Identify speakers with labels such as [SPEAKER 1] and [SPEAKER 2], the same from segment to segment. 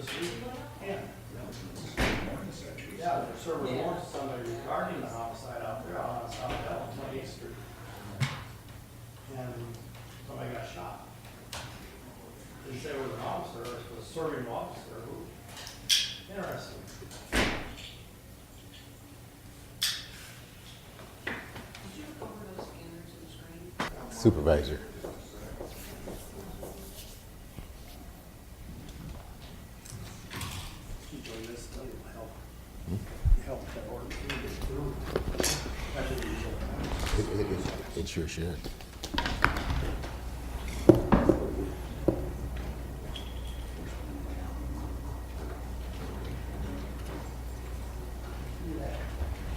[SPEAKER 1] Yeah,
[SPEAKER 2] Yeah,
[SPEAKER 3] Yeah.
[SPEAKER 2] they're serving warrants to somebody regarding the homicide out there on South Bell, Twenty-Eighth Street. And somebody got shot. Didn't say it was an officer, it was a serving officer, who, interesting.
[SPEAKER 4] Did you cover those scanners and screen?
[SPEAKER 5] Supervisor.
[SPEAKER 2] Enjoy this, too, help, help that order get through. That's what we should-
[SPEAKER 5] It, it, it, it sure should.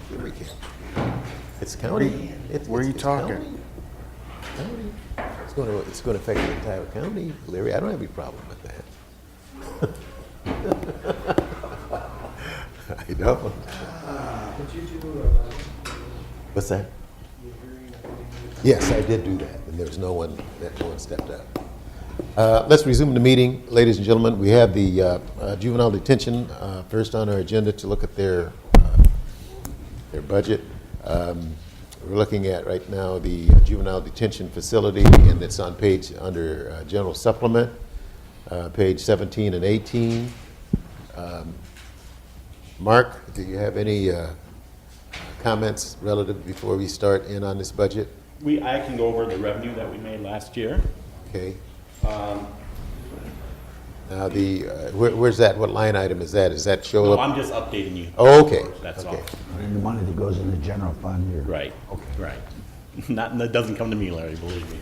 [SPEAKER 5] Here we go. It's county. It's-
[SPEAKER 6] where
[SPEAKER 5] it's-
[SPEAKER 6] you
[SPEAKER 5] it's
[SPEAKER 6] talking?
[SPEAKER 5] county. County. It's gonna, it's gonna affect the entire county, Larry. I don't have any problem with that. I don't. What's that? Yes, I did do that, and there was no one, that no one stepped up. Uh, Let's resume the meeting, ladies and gentlemen. We have the uh, uh, juvenile detention uh, first on our agenda to look at their, uh, their budget. Um, We're looking at right now the juvenile detention facility, and it's on page, under uh, general supplement, uh, page 17 and 18. Um, Mark, do you have any uh, comments relative, before we start in on this budget?
[SPEAKER 7] We, I can go over the revenue that we made last year.
[SPEAKER 5] Okay.
[SPEAKER 7] Um,
[SPEAKER 5] Now, the, uh, where- where's that, what line item is that? Is that show
[SPEAKER 7] No,
[SPEAKER 5] up?
[SPEAKER 7] I'm just updating you.
[SPEAKER 5] Oh, okay.
[SPEAKER 7] That's
[SPEAKER 5] okay.
[SPEAKER 7] all.
[SPEAKER 6] And the money that goes in the general fund, you're.
[SPEAKER 7] Right, right. Not, that doesn't come to me, Larry, believe me.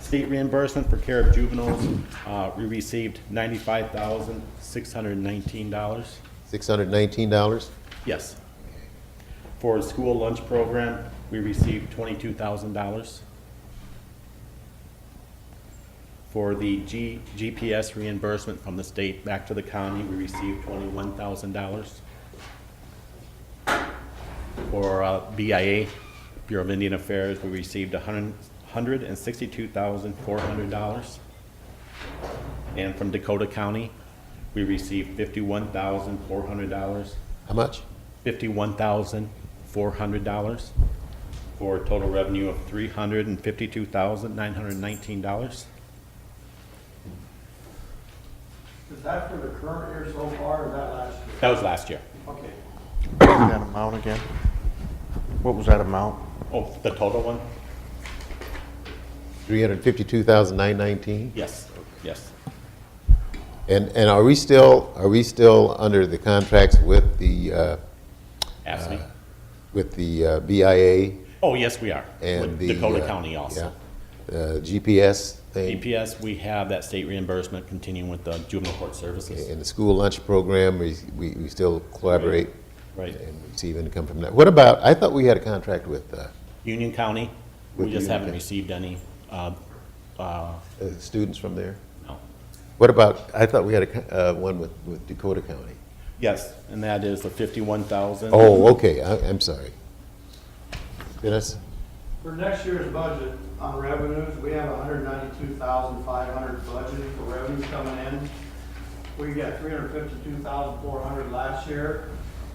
[SPEAKER 7] State reimbursement for care of juveniles, uh, we received ninety-five thousand, six hundred and nineteen dollars.
[SPEAKER 5] $619?
[SPEAKER 7] Yes. For a school lunch program, we received twenty-two thousand dollars. For the G, GPS reimbursement from the state back to the county, we received twenty-one thousand dollars. For uh, BIA, Bureau of Indian Affairs, we received a hundred, hundred and sixty-two thousand, four hundred dollars. And from Dakota County, we received fifty-one thousand, four hundred dollars
[SPEAKER 5] How much?
[SPEAKER 7] fifty-one thousand, four hundred dollars for a total revenue of three hundred and fifty-two thousand, nine hundred and nineteen dollars.
[SPEAKER 2] Is that for the current year so far, or that last year?
[SPEAKER 7] That was last year.
[SPEAKER 2] Okay.
[SPEAKER 6] What was that amount again? What was that amount?
[SPEAKER 7] Oh, the total one?
[SPEAKER 5] 352919
[SPEAKER 7] Yes, yes.
[SPEAKER 5] And, and are we still, are we still under the contracts with the, uh,
[SPEAKER 7] Absent.
[SPEAKER 5] with the uh, BIA
[SPEAKER 7] Oh, yes, we are.
[SPEAKER 5] and
[SPEAKER 7] With
[SPEAKER 5] the?
[SPEAKER 7] Dakota
[SPEAKER 5] uh,
[SPEAKER 7] County also.
[SPEAKER 5] yeah, uh, GPS thing?
[SPEAKER 7] DPS, we have that state reimbursement continuing with the juvenile court services.
[SPEAKER 5] And the school lunch program, we, we we still collaborate?
[SPEAKER 7] Right.
[SPEAKER 5] And receive income from that. What about, I thought we had a contract with uh,
[SPEAKER 7] Union County,
[SPEAKER 5] With
[SPEAKER 7] we just
[SPEAKER 5] Union
[SPEAKER 7] haven't
[SPEAKER 5] County.
[SPEAKER 7] received any, uh, uh,
[SPEAKER 5] uh, students from there?
[SPEAKER 7] no.
[SPEAKER 5] What about, I thought we had a, co- uh, one with, with Dakota County?
[SPEAKER 7] Yes, and that is the fifty-one thousand.
[SPEAKER 5] Oh, okay, I, I'm sorry. Dennis?
[SPEAKER 2] For next year's budget on revenues, we have hundred ninety-two thousand five hundred budgeted for revenues coming in. We got three hundred fifty-two thousand four hundred last year.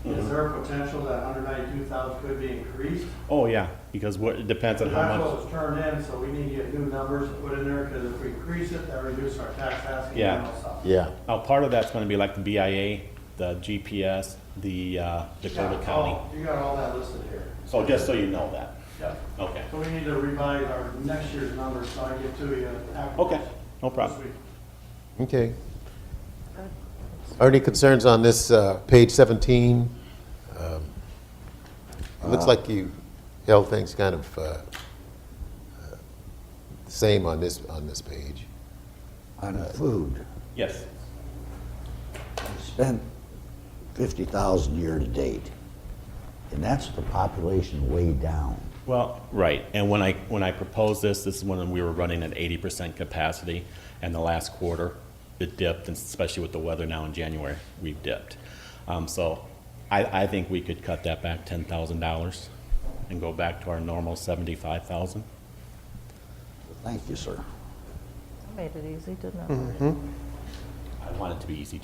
[SPEAKER 7] Mm-hmm.
[SPEAKER 2] Is there a potential that hundred ninety-two thousand could be increased?
[SPEAKER 7] Oh, yeah, because what, it depends on
[SPEAKER 2] That's
[SPEAKER 7] how much.
[SPEAKER 2] what was turned in, so we need to get new numbers to put in there, because if we increase it, that reduces our tax asking.
[SPEAKER 7] Yeah.
[SPEAKER 2] and all stuff.
[SPEAKER 5] Yeah.
[SPEAKER 7] Now, Oh, part of that's gonna be like the BIA, the GPS, the uh, Dakota
[SPEAKER 2] Yeah,
[SPEAKER 7] County.
[SPEAKER 2] oh, You got all that listed here.
[SPEAKER 7] So just so you know that.
[SPEAKER 2] Yeah.
[SPEAKER 7] Okay.
[SPEAKER 2] So we need to revise our next year's numbers, so I get to you after.
[SPEAKER 7] Okay,
[SPEAKER 2] this
[SPEAKER 7] no problem.
[SPEAKER 2] week.
[SPEAKER 5] Okay. Are any concerns on this, uh, page seventeen? Um, It looks like you held things kind of, uh, uh, the same on this, on this page.
[SPEAKER 6] On uh, food,
[SPEAKER 7] Yes,
[SPEAKER 6] spent fifty thousand year to date. And that's the population way down.
[SPEAKER 7] well, right, and when I, when I proposed this, this is when we were running at eighty percent capacity, and the last quarter, it dipped, and especially with the weather now in January, we've dipped. Um, so I, I think we could cut that back ten thousand dollars and go back to our normal seventy-five thousand.
[SPEAKER 6] Thank you, sir.
[SPEAKER 8] Made it easy, didn't I?
[SPEAKER 7] I want it to be easy